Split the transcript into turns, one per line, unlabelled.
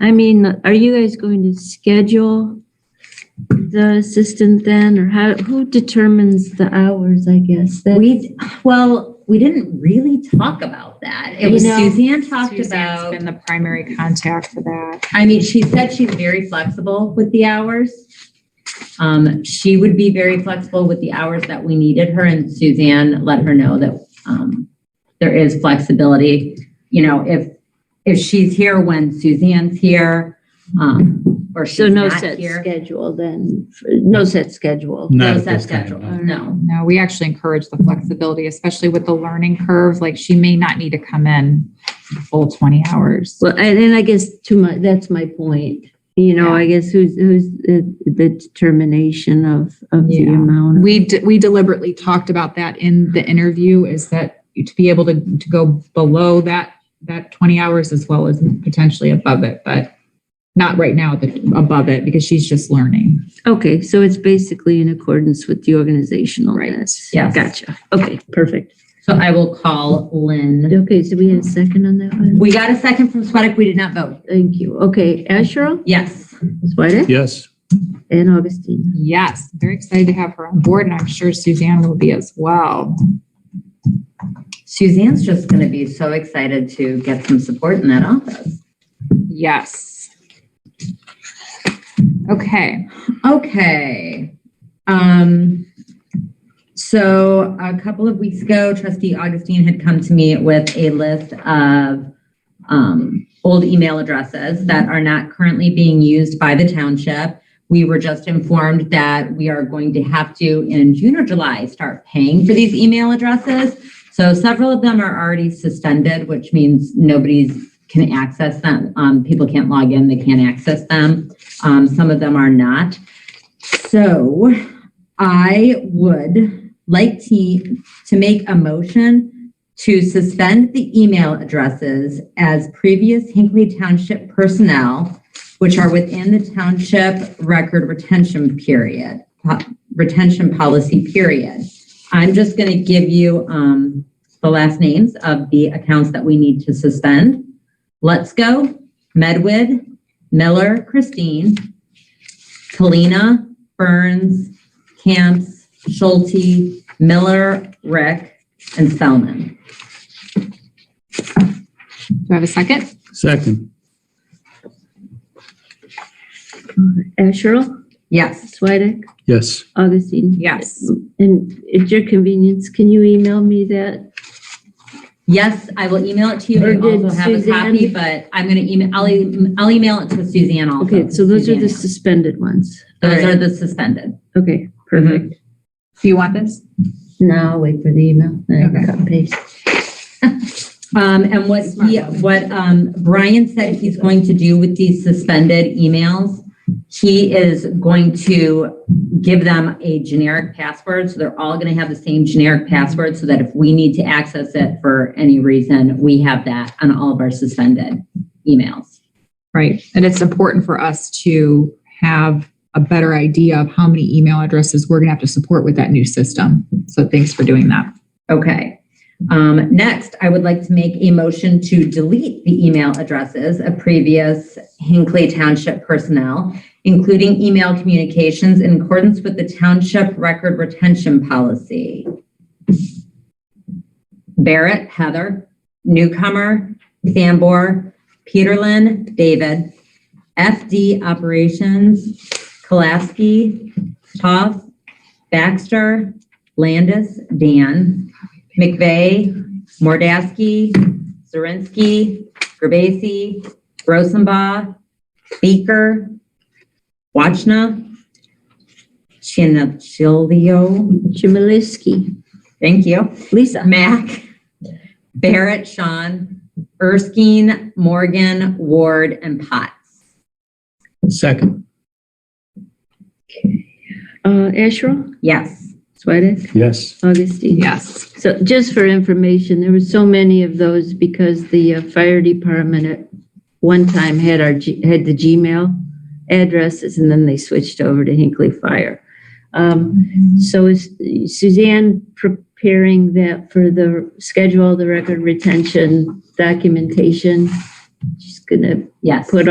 I mean, are you guys going to schedule the assistant then, or how, who determines the hours, I guess? That-
We, well, we didn't really talk about that. It was
You know,
Suzanne talked
Suzanne's
about,
been the primary contact for that.
I mean, she said she's very flexible with the hours. Um, she would be very flexible with the hours that we needed her and Suzanne let her know that, um, there is flexibility. You know, if, if she's here when Suzanne's here, um, or
So
she's
no
not
set
here.
schedule then, no set schedule.
Not
No
at
set
this time,
schedule,
no.
no.
Um, No, we actually encourage the flexibility, especially with the learning curve. Like she may not need to come in the full 20 hours.
Well, and then I guess to my, that's my point. You know, I guess who's, who's the the determination of, of the
Yeah.
amount.
We, de- we deliberately talked about that in the interview is that to be able to, to go below that, that 20 hours as well as potentially above it, but not right now at the, above it because she's just learning.
Okay, so it's basically in accordance with the organizational
Right,
minutes.
yes.
Gotcha. Okay, perfect.
So I will call Lynn.
Okay, so we have a second on that one?
We got a second from Sweattick. We did not vote.
Thank you. Okay, Asherle,
Yes.
Swedek,
Yes,
and Augustine.
Yes, very excited to have her on board and I'm sure Suzanne will be as well.
Suzanne's just going to be so excited to get some support in that office.
Yes. Okay,
Okay. Um, so a couple of weeks ago, trustee Augustine had come to me with a list of um, old email addresses that are not currently being used by the township. We were just informed that we are going to have to, in June or July, start paying for these email addresses. So several of them are already suspended, which means nobody's can access them. Um, people can't log in, they can't access them. Um, some of them are not. So I would like to, to make a motion to suspend the email addresses as previous Hinckley Township personnel, which are within the township record retention period, po- retention policy period. I'm just going to give you um, the last names of the accounts that we need to suspend. Let's Go, Medwid, Miller, Christine, Kalina, Burns, Camps, Schulte, Miller, Rick, and Spellman.
do I have a second?
second,
Asherle,
Yes.
Uh, Swedek,
yes,
Augustine.
Yes.
And at your convenience, can you email me that?
Yes, I will email it to you.
Or
I
did
also have a copy,
Suzanne-
but I'm going to email, I'll, e- I'll email it to Suzanne also.
Okay, so those are the
Suzanne.
suspended ones.
Those are the suspended.
Okay, perfect.
Do you want this?
Mm-hmm. Now I'll wait for the email. then
Okay.
cut and paste.
Um, and what he, what, um, Brian said he's going to do with these suspended emails, he is going to give them a generic password, so they're all gonna have the same generic password, so that if we need to access it for any reason, we have that on all of our suspended emails.
Right, and it's important for us to have a better idea of how many email addresses we're gonna have to support with that new system. So thanks for doing that.
Okay. Um, next, I would like to make a motion to delete the email addresses of previous Hinckley Township personnel, including email communications in accordance with the township record retention policy. Barrett, Heather, newcomer, Sambor, Peterlin, David, FD operations, Kolaski, Toff, Baxter, Landis, Dan, McVeigh, Mordasky, Zirinsky, Gerbasi, Rosenbaugh, Beaker, Wachna, Chinachilio,
Chmielewski,
thank you.
Lisa.
Mac, Barrett, Sean, Erskine, Morgan, Ward, and Potts.
second,
Uh, Asherle,
Yes.
Swedek,
yes,
Augustine.
Yes,
So just for information, there were so many of those because the uh, fire department at one time had our, G- had the Gmail addresses and then they switched over to Hinckley Fire. Um, So is Suzanne preparing that for the schedule, the record retention documentation? She's gonna
Yes.
put